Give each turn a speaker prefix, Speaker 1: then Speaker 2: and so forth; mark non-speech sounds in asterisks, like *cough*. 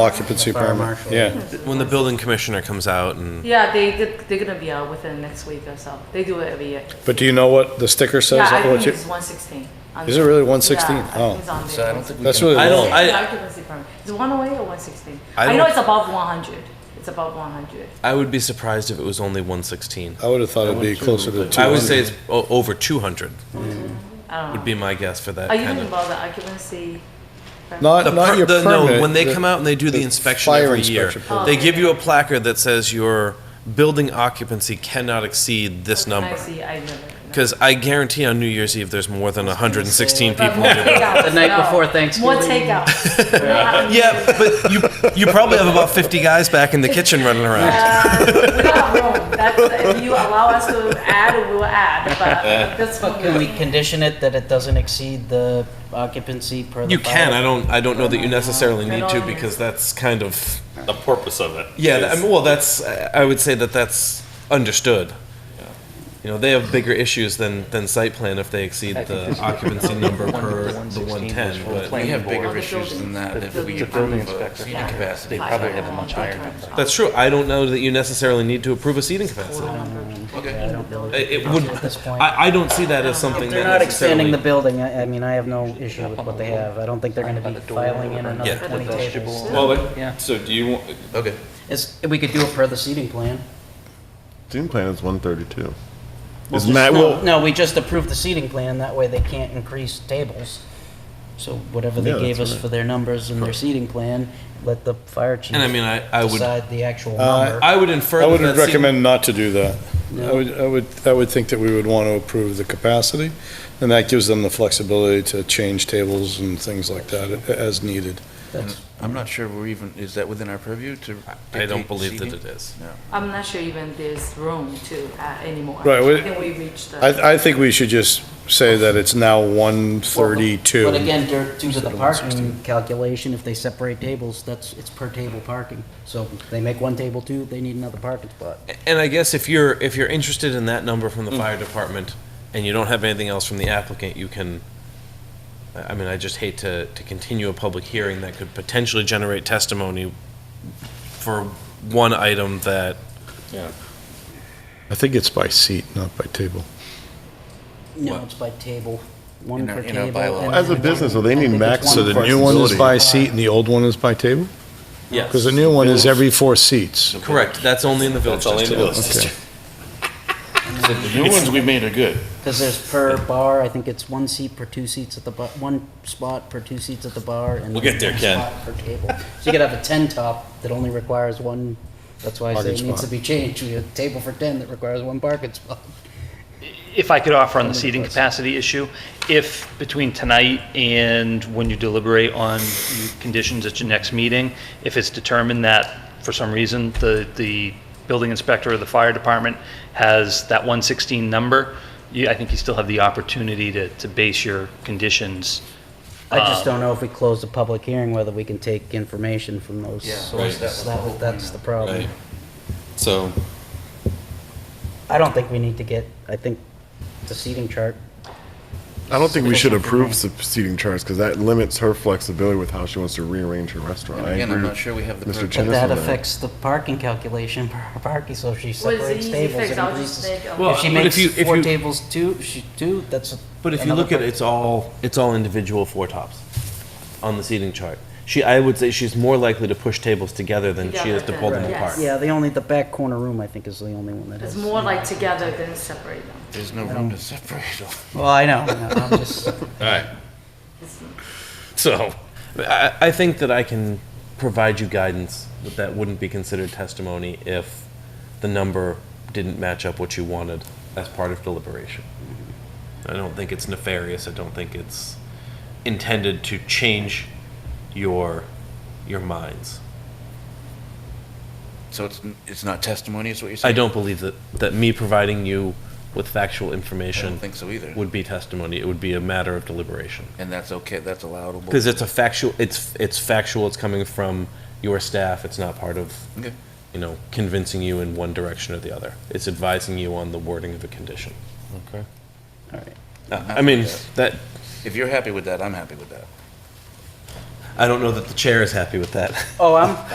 Speaker 1: Occupancy
Speaker 2: Fire
Speaker 1: permit,
Speaker 2: marshal.
Speaker 1: yeah.
Speaker 3: When the building commissioner comes out and
Speaker 4: Yeah, they, did- they're gonna be out within the next week or so. They do it every year.
Speaker 1: But do you know what the sticker says?
Speaker 4: Yeah, I
Speaker 1: What
Speaker 4: think
Speaker 1: you-
Speaker 4: it's one sixteen.
Speaker 1: Is it really 116? Oh.
Speaker 5: So I don't think we
Speaker 1: That's
Speaker 5: can-
Speaker 1: really
Speaker 3: I
Speaker 1: low.
Speaker 3: don't- I-
Speaker 4: Occupancy permit. Is it one oh eight or one sixteen?
Speaker 3: I
Speaker 4: I know
Speaker 3: don't-
Speaker 4: it's above one hundred. It's above one hundred.
Speaker 3: I would be surprised if it was only 116.
Speaker 1: I would have thought it'd be closer to 200.
Speaker 3: I would say it's o- over 200
Speaker 4: I don't know.
Speaker 3: would be my guess for that
Speaker 4: Are you
Speaker 3: kind
Speaker 4: talking
Speaker 3: of.
Speaker 4: about the occupancy? permit?
Speaker 1: Not,
Speaker 3: The
Speaker 1: not
Speaker 3: per-
Speaker 1: your
Speaker 3: the-
Speaker 1: permit.
Speaker 3: no, when they
Speaker 1: the-
Speaker 3: come out and they do the, inspection
Speaker 1: fire
Speaker 3: every year,
Speaker 1: inspection permit.
Speaker 4: Oh.
Speaker 3: they give you a placard that says your building occupancy cannot exceed this
Speaker 4: I
Speaker 3: number.
Speaker 4: see, I never.
Speaker 3: Because I guarantee on New Year's Eve there's more than 116 people. in
Speaker 4: *laughs*
Speaker 3: your
Speaker 4: The
Speaker 5: The night before Thanksgiving.
Speaker 4: More takeout.
Speaker 1: *laughs*
Speaker 4: Yeah,
Speaker 3: Yeah, but you you probably have about 50 guys back in the kitchen running around.
Speaker 4: We got room. That's, if you allow us to add, we will
Speaker 1: *laughs*
Speaker 4: add, but this one.
Speaker 5: Can we condition it that it doesn't exceed the occupancy per the?
Speaker 3: You can.
Speaker 5: bylaw?
Speaker 3: I don't. I don't know that you necessarily need to because that's kind of
Speaker 6: the purpose of it.
Speaker 3: Yeah, th- I
Speaker 6: is-
Speaker 3: mean, well, that's, I I would say that that's understood. You know, they have bigger issues than, than site plan if they exceed the occupancy number per the 110, but
Speaker 7: We have
Speaker 4: Or
Speaker 7: bigger
Speaker 4: the
Speaker 7: issues
Speaker 4: building-
Speaker 7: than that if
Speaker 4: the
Speaker 7: we
Speaker 4: building
Speaker 7: approve a
Speaker 4: inspector.
Speaker 7: seating capacity, they probably have a much higher number.
Speaker 3: that's true. I don't know that you necessarily need to approve a seating capacity. It it would,
Speaker 5: At this point.
Speaker 3: I, I don't see that as something
Speaker 5: They're
Speaker 3: that
Speaker 5: not expanding the
Speaker 3: necessarily.
Speaker 5: building, I, I mean, I have no issue with what they have, I don't think they're gonna be filing in another
Speaker 3: Yeah.
Speaker 5: twenty tables.
Speaker 6: Well,
Speaker 5: Yeah.
Speaker 6: but, so do you, want-
Speaker 7: Okay.
Speaker 5: It's, we could do it per the seating plan.
Speaker 8: Team plan is one thirty-two. Is Matt, well,
Speaker 5: No, we just approved the seating plan, that way they can't increase tables. So whatever they
Speaker 8: Yeah,
Speaker 5: gave
Speaker 8: that's
Speaker 5: us
Speaker 8: right.
Speaker 5: for their numbers and their seating plan, let the fire chief
Speaker 3: And I mean, I, I would, uh,
Speaker 5: decide the actual number.
Speaker 3: I would infer.
Speaker 1: I
Speaker 3: that
Speaker 1: would
Speaker 3: that seating-
Speaker 1: recommend not to do that. I
Speaker 5: No.
Speaker 1: would, I would, I would think that we would want to approve the capacity, and that gives them the flexibility to change tables and things like that a- as needed.
Speaker 5: That's-
Speaker 7: I'm not sure we're even, is that within our purview to?
Speaker 3: I don't
Speaker 7: dictate
Speaker 3: believe that
Speaker 7: seating?
Speaker 3: it is.
Speaker 4: I'm not sure even there's room to add anymore.
Speaker 1: Right, we-
Speaker 4: I think we reached the.
Speaker 1: I, I think we should just say that it's now one thirty-two.
Speaker 5: But again, due- due to the parking calculation, if they separate tables, that's, it's per table parking. So they make one table two, they need another parking spot.
Speaker 3: And I guess if you're, if you're interested in that number from the fire department and you don't have anything else from the applicant, you can, I I mean, I just hate to, to continue a public hearing that could potentially generate testimony for one item that,
Speaker 1: I think it's by seat, not by table.
Speaker 5: No, it's by table, one
Speaker 7: In our-
Speaker 5: per
Speaker 7: in our
Speaker 5: table.
Speaker 7: bylaw.
Speaker 5: and
Speaker 8: As a
Speaker 5: then-
Speaker 8: business, though, they
Speaker 5: I
Speaker 8: need
Speaker 5: think it's
Speaker 8: max
Speaker 5: one
Speaker 8: so the
Speaker 5: per Uh,
Speaker 1: New one is
Speaker 8: Facility.
Speaker 1: by seat and the old one is by table?
Speaker 3: yes.
Speaker 1: Because the new one is every four seats.
Speaker 3: Correct, that's only in the village
Speaker 6: that's only in the
Speaker 3: district.
Speaker 6: village district.
Speaker 7: The new ones we made are good.
Speaker 5: Because there's per bar, I think it's one seat per two seats at the bar, one spot per two seats at the bar, and
Speaker 6: We'll get there,
Speaker 5: one
Speaker 6: Ken.
Speaker 5: spot Per table. So you could have a ten top that only requires one, that's why I say it
Speaker 1: Parking
Speaker 5: needs to
Speaker 1: spot.
Speaker 5: be changed, we have a table for ten that requires one parking spot.
Speaker 9: If I could offer on the seating capacity issue, if between tonight and when you deliberate on your conditions at your next meeting, if it's determined that for some reason the, the building inspector or the fire department has that 116 number, you, I think you still have the opportunity to, to base your conditions.
Speaker 5: I just don't know if we close the public hearing, whether we can take information from those
Speaker 7: Yeah, right, that was
Speaker 5: sources,
Speaker 7: the
Speaker 5: That-
Speaker 7: whole
Speaker 5: that's the problem.
Speaker 6: Right. So,
Speaker 5: I don't think we need to get, I think the seating chart,
Speaker 8: I don't think we should approve sub- seating charts because that limits her flexibility with how she wants to rearrange her restaurant. I
Speaker 7: Again,
Speaker 8: agree
Speaker 7: I'm
Speaker 8: with
Speaker 7: not sure we have the.
Speaker 8: Mr.
Speaker 7: purview.
Speaker 5: but
Speaker 8: Tennyson
Speaker 5: that
Speaker 8: on
Speaker 5: affects the parking calculation per parking, so if she
Speaker 4: Well, it's an
Speaker 5: separates
Speaker 4: easy
Speaker 5: tables,
Speaker 4: fix.
Speaker 5: it
Speaker 4: I'll just
Speaker 5: increases.
Speaker 4: make a-
Speaker 3: Well,
Speaker 5: If she
Speaker 3: but if
Speaker 5: makes
Speaker 3: you- if
Speaker 5: four
Speaker 3: you-
Speaker 5: tables two, she two, that's. a-
Speaker 3: But if you
Speaker 5: another
Speaker 3: look at it,
Speaker 5: per-
Speaker 3: it's all, it's all individual four tops on the seating chart. She, I would say she's more likely to push tables together than she is to pull them
Speaker 4: Together,
Speaker 3: apart.
Speaker 4: yes.
Speaker 5: Yeah, the only, the back corner room, I think, is the only one that
Speaker 4: It's
Speaker 5: has.
Speaker 4: more like together than separate them.
Speaker 7: There's no room to separate them.
Speaker 5: Well, I know, I know, I'm *laughs* just,
Speaker 3: *laughs* So, I, I think that I can provide you guidance that that wouldn't be considered testimony if the number didn't match up what you wanted as part of deliberation. Mm-hmm. I don't think it's nefarious. I don't think it's intended to change your your minds.
Speaker 7: So it's, n- it's not testimony, is what you're
Speaker 3: I
Speaker 7: saying?
Speaker 3: don't believe that that me providing you with factual
Speaker 7: I
Speaker 3: information
Speaker 7: don't think so either.
Speaker 3: would be testimony. It would be a matter of deliberation.
Speaker 7: And that's okay, that's allowable.
Speaker 3: Because it's a factual, it's, it's factual, it's coming from your staff, it's not part of,
Speaker 7: Okay.
Speaker 3: you know, convincing you in one direction or the other. It's advising you on the wording of a condition.
Speaker 6: okay.
Speaker 3: Uh, I mean, that,
Speaker 7: If you're happy with that, I'm happy with that.
Speaker 3: I don't know that *laughs* the chair is happy with that.
Speaker 5: Oh, I'm,